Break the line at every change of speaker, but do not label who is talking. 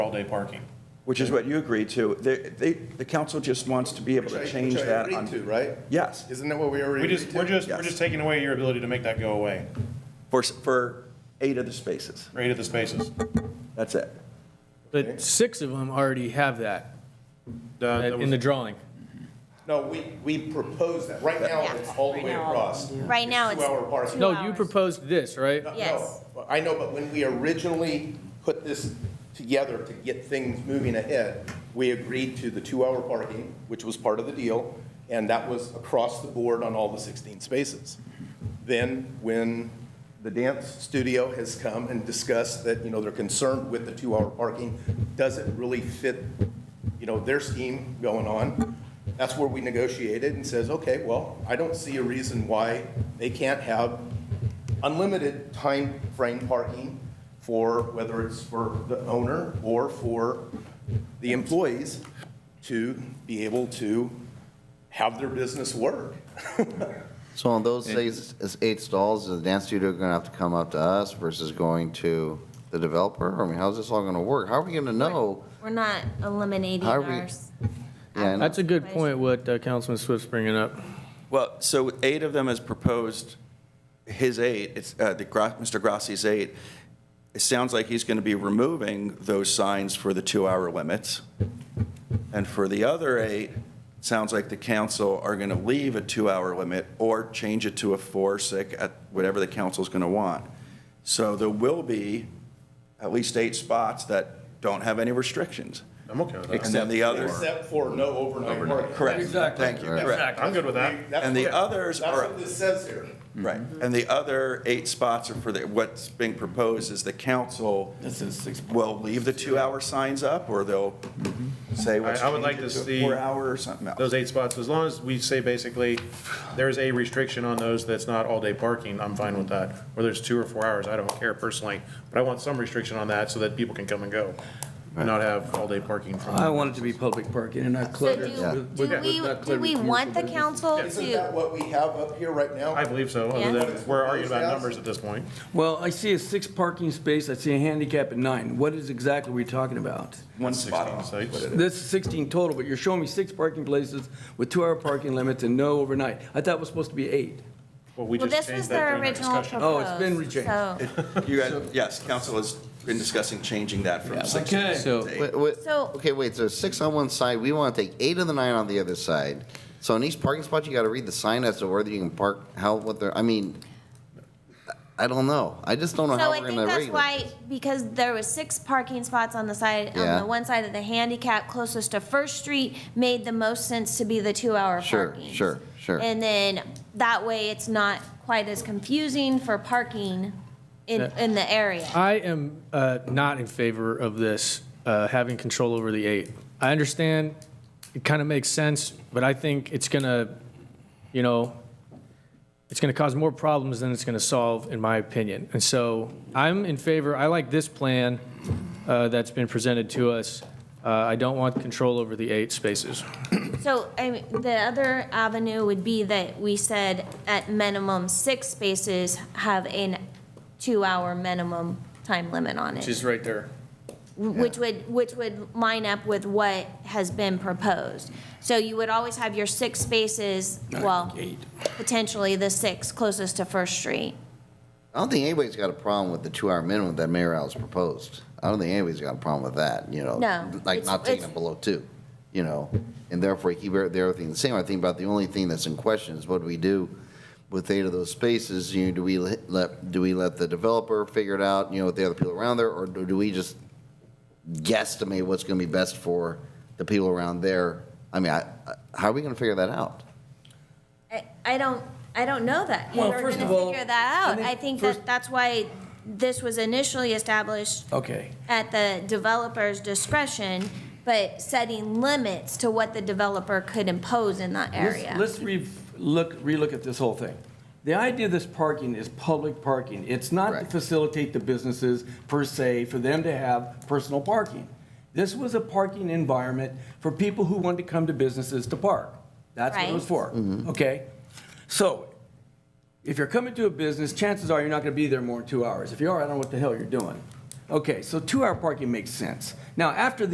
all-day parking.
Which is what you agreed to. They, they, the council just wants to be able
Which I-
to
which
change
I
that
agreed
on.
to, right?
Yes,
Isn't that what we already?
We just,
agreed to?
we're just, we're
Yes.
just taking away your ability to make that go away,
for, s- for eight of the spaces.
right at the spaces.
That's it.
But six of them already have that uh, in the drawing.
No, we, we proposed that. Right now,
Yeah.
it's all the way across.
Right now, it's-
Two-hour parking.
Two
No, you
hours.
proposed this, right?
No,
Yes.
no, I know, but when we originally put this together to get things moving ahead, we agreed to the two-hour parking, which was part of the deal, and that was across the board on all the 16 spaces. Then, when the dance studio has come and discussed that, you know, they're concerned with the two-hour parking, does it really fit, you know, their scheme going on? That's where we negotiated and says, okay, well, I don't see a reason why they can't have unlimited time frame parking for, whether it's for the owner or for the employees to be able to have their business work.
So on those eight, eight stalls, is the dance studio gonna have to come up to us versus going to the developer? I mean, how's this all gonna work? How are we gonna know?
We're not eliminating
How are we-
ours.
Yeah, I know.
That's a good point, what uh, Councilman Swift's bringing up.
Well, so eight of them is proposed, his eight, it's, uh, the, Gra- Mr. Grassi's eight. It sounds like he's going to be removing those signs for the two-hour limits. And for the other eight, it sounds like the council are going to leave a two-hour limit or change it to a four, six, at whatever the council's going to want. So there will be at least eight spots that don't have any restrictions.
I'm okay with that.
And then the others,
Except for no overnight parking.
correct. Exactly. Thank you, correct.
I'm good with that.
That's
And the
what-
others are-
That's what this says here.
Right, and the other eight spots are for the, what's being proposed is the council will leave the two-hour signs up, or they'll say, let's
I- I would like
change it
to
to a
see
four-hour or something
Those
else.
eight spots, as long as we say basically, there's a restriction on those that's not all-day parking, I'm fine with that. Whether it's two or four hours, I don't care personally, but I want some restriction on that so that people can come and go, and not have all-day parking. from-
I want it to be public parking and not
So
cluttered.
do,
with-
do
with-
we,
not
do
cluttered
we
with
want the
commercial business.
council
Isn't that
to,
what we have up here right now?
I believe so, other
Yeah.
than we're arguing about numbers at this point.
Well, I see a six parking space, I see a handicap at nine. What is exactly we talking about?
One spot off.
16 sites.
This is 16 total, but you're showing me six parking places with two-hour parking limits and no overnight. I thought it was supposed to be eight.
Well, we
well,
just
this was
changed that
their
during our
original
discussion.
proposal.
Oh, it's been rechanged.
You guys, yes, council has been discussing changing that from six to
Okay.
So
Wait, wait,
So-
okay, wait, so six on one side, we wanna take eight of the nine on the other side. So in each parking spot, you gotta read the sign as to whether you can park, how, what they're, I mean, I don't know. I just don't know how
So
we're
I
gonna
think
rate
that's
it.
why, because there was six parking spots on the side, on
Yeah.
the one side of the handicap closest to First Street, made the most sense to be the two-hour
Sure,
parking.
sure, sure.
And then that way it's not quite as confusing for parking in, in the area.
I am uh, not in favor of this, uh, having control over the eight. I understand, it kind of makes sense, but I think it's going to, you know, it's going to cause more problems than it's going to solve, in my opinion. And so I'm in favor, I like this plan uh, that's been presented to us. Uh, I don't want control over the eight spaces.
So, I mean, the other avenue would be that we said at minimum six spaces have a two-hour minimum time limit on it,
She's right there.
which would, which would line up with what has been proposed. So you would always have your six spaces, well,
Eight.
potentially the six closest to First Street.
I don't think anybody's got a problem with the two-hour minimum that Mayor Al's proposed. I don't think anybody's got a problem with that, you know?
No,
Like
it's-
not taking
it's-
it below two, you know? And therefore, keep everything- everything the same. I think about the only thing that's in question is what do we do with eight of those spaces? You, know, do we let- let, do we let the developer figure it out, you know, with the other people around there? Or do do we just guesstimate what's going to be best for the people around there? I mean, I, I- how are we going to figure that out?
I, I don't, I don't know that.
Well,
We're
first
gonna
of all,
figure that
I
out.
think
I think
first-
that that's why this was initially established
Okay.
at the developer's discretion, but setting limits to what the developer could impose in that
Let's-
area.
Let's re, look, relook at this whole thing. The idea of this parking is public parking. It's not to
Correct.
facilitate the businesses per se, for them to have personal parking. This was a parking environment for people who wanted to come to businesses to park. That's what it was
Right.
for, okay? So, if you're coming to a business, chances are you're not gonna be there more than two hours. If you are, I don't know what the hell you're doing. Okay, so two-hour parking makes sense. Now, after the